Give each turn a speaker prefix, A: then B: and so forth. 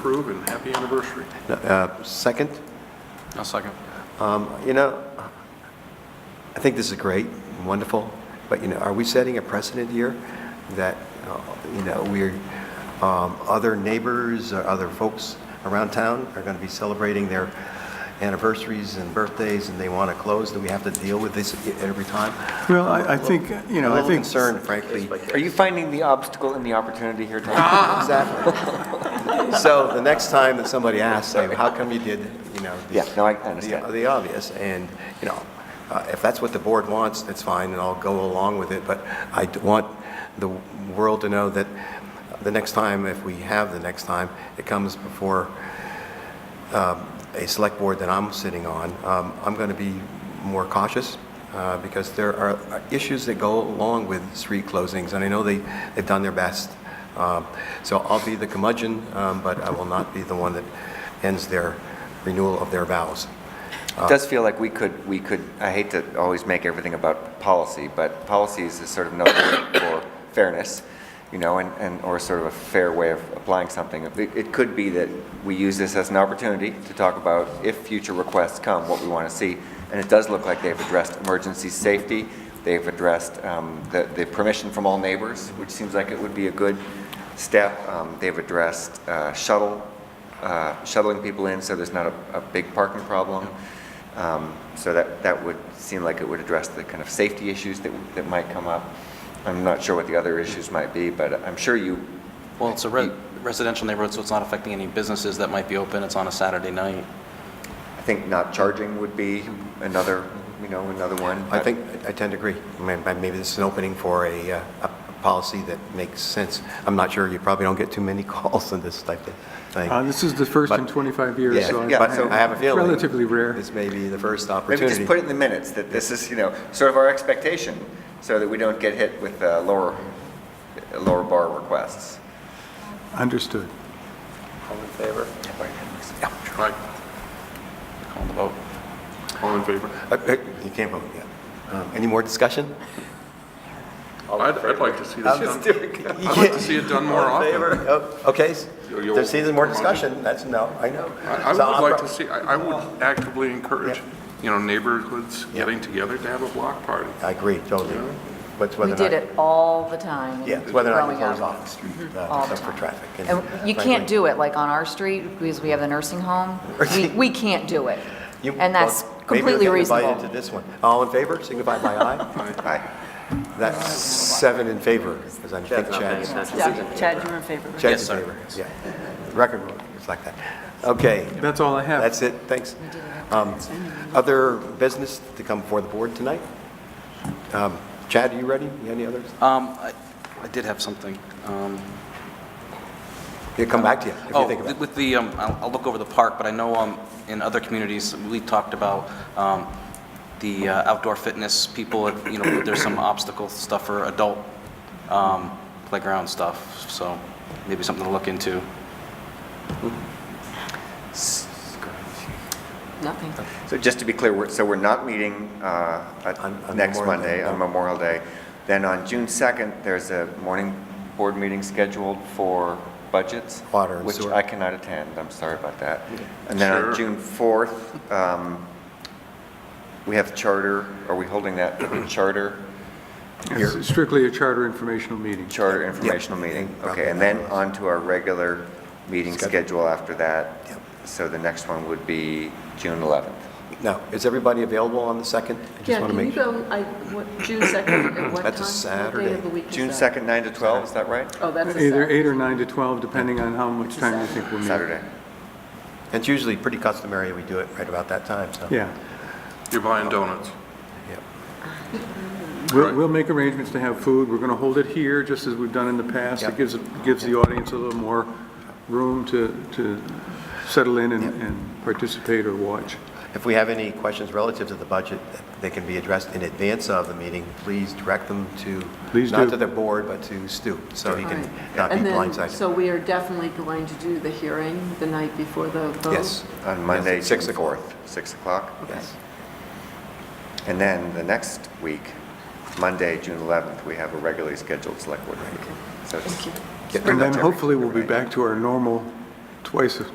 A: approve, and happy anniversary.
B: Uh, Second,
C: I'll second.
B: um, you know, I think this is great, wonderful, but, you know, are we setting a precedent here that, uh, you know, we're, um, other neighbors or other folks around town are going to be celebrating their anniversaries and birthdays, and they want to close? Do we have to deal with this every time?
D: Well, I, I think, you know,
B: A
D: I
B: little
D: think.
B: concerned, frankly.
E: Are you finding the obstacle in the opportunity here, Tom?
B: Uh-huh. Exactly. So the next time that somebody asks, say, how come you did, you know? the-
E: Yeah, no, I understand.
B: the- The obvious, and, you know, uh, if that's what the board wants, that's fine, and I'll go along with it, but I d- want the world to know that the next time, if we have the next time, it comes before um, a select board that I'm sitting on, um, I'm going to be more cautious uh, because there are issues that go along with street closings, and I know they, they've done their best. Um, So I'll be the curmudgeon, um, but I will not be the one that ends their renewal of their vows.
E: It does feel like we could, we could, I hate to always make everything about policy, but policy is a sort of note for fairness, you know, and, and, or sort of a fair way of applying something. It, it could be that we use this as an opportunity to talk about if future requests come, what we want to see. And it does look like they've addressed emergency safety, they've addressed um, the, the permission from all neighbors, which seems like it would be a good step. Um, They've addressed uh, shuttle uh, shuttling people in, so there's not a, a big parking problem. Um, So that, that would seem like it would address the kind of safety issues that, that might come up. I'm not sure what the other issues might be, but I'm sure you,
C: Well, it's a re- residential neighborhood, so it's not affecting any businesses that might be open. It's on a Saturday night.
E: I think not charging would be another, you know, another one.
B: I think, I tend to agree. I mean, but Maybe this is an opening for a, uh, a policy that makes sense. I'm not sure, you probably don't get too many calls on this type of thing.
D: Uh, this is the first in
B: But-
D: 25 years,
B: Yeah,
D: so.
E: yeah,
B: but
E: so
B: I have a feeling.
D: Relatively rare.
B: This may be the first
E: Maybe
B: opportunity.
E: just put it in the minutes, that this is, you know, sort of our expectation, so that we don't get hit with uh, lower, lower bar requests.
D: Understood.
B: All in favor?
A: Right.
C: Call the vote.
A: All in favor?
B: Uh, You can't vote yet. Um, Any more discussion?
A: I'd, I'd like to see this done,
B: I'd
A: I'd like to see it done more often.
B: Okay, s-
A: You're- you're-
B: there seems more discussion, that's, no, I know.
A: I I
B: So I'm
A: would like
B: pro-
A: to see, I I would actively encourage, you know, neighborhoods
B: Yeah.
A: getting together to have a block party.
B: I agree, totally. But it's
F: We
B: whether or
F: did
B: not-
F: it all the time.
B: Yeah, it's whether or not we
F: growing
B: close
F: up.
B: off the street, uh,
F: All the
B: except for
F: time.
B: traffic.
F: And you can't do it, like on our street, because we have the nursing home, we, we can't do it.
B: You-
F: And that's
B: well, maybe you'll
F: completely
B: get
F: reasonable.
B: Invited to this one. All in favor, signify by aye.
E: Aye.
B: That's seven in favor, because I think Chad's.
G: Yeah, Chad, you were in favor, right?
B: Chad's
C: Yes,
B: in
C: sir.
B: favor, yeah. Record book, it's like that. Okay,
D: That's all I have.
B: that's it, thanks. Um, Other business to come before the board tonight? Um, Chad, are you ready? You Any others?
C: Um, I I did have something. Um,
B: He'll come back to you if you
C: Oh,
B: think about it.
C: with the, um, I'll I'll look over the park, but I know um, in other communities, we talked about um, the uh, outdoor fitness people, you know, there's some obstacle stuff for adult um, playground stuff, so maybe something to look into.
G: Nothing.
E: So just to be clear, we're- so we're not meeting uh, at
B: On- on
E: next
B: Memorial Day,
E: Monday, on
B: no.
E: Memorial Day. Then on June 2nd, there's a morning board meeting scheduled for budgets.
B: Water and
E: Which
B: sewer.
E: I cannot attend, I'm sorry about that. And then on
A: Sure.
E: June 4th, um, we have charter, are we holding that for charter?
D: It's strictly a charter informational meeting.
E: Charter informational meeting?
B: Yeah.
E: Okay, and then on to our regular meeting
B: Schedule.
E: schedule after that.
B: Yep.
E: So the next one would be June 11th.
B: Now, is everybody available on the 2nd? I just
G: Yeah,
B: want to
G: can you
B: make sure.
G: go, I, what, June 2nd, at what time?
B: That's a
G: What
B: Saturday.
G: day of the week is
E: June
G: that?
E: 2nd, 9 to 12, is that right?
G: Oh, that's a
D: Either
G: Saturday.
D: eight or nine to 12, depending on how much time you think we'll need.
E: Saturday.
B: It's usually pretty customary, we do it right about that time, so.
D: Yeah.
A: You're buying donuts.
B: Yep.
D: We'll,
A: Right.
D: we'll make arrangements to have food. We're going to hold it here, just as we've done in the past.
B: Yep.
D: It gives, gives the audience a little more room to, to settle in and, and participate or watch.
B: If we have any questions relative to the budget, they can be addressed in advance of the meeting. Please direct them to,
D: Please
B: not
D: do.
B: to the board, but to Stu, so he
G: All
B: can
G: right.
B: not be
G: And then,
B: blindsided.
G: so we are definitely going to do the hearing the night before the vote?
B: Yes.
E: On Monday, June
B: Six o'clock.
E: 4th, 6 o'clock.
B: Yes.
E: And then the next week, Monday, June 11th, we have a regularly scheduled select board meeting. So it's-
G: Thank you.
E: Get
D: And
E: pretty
D: then
E: much every-
D: hopefully we'll be
E: every night.
D: back to our normal twice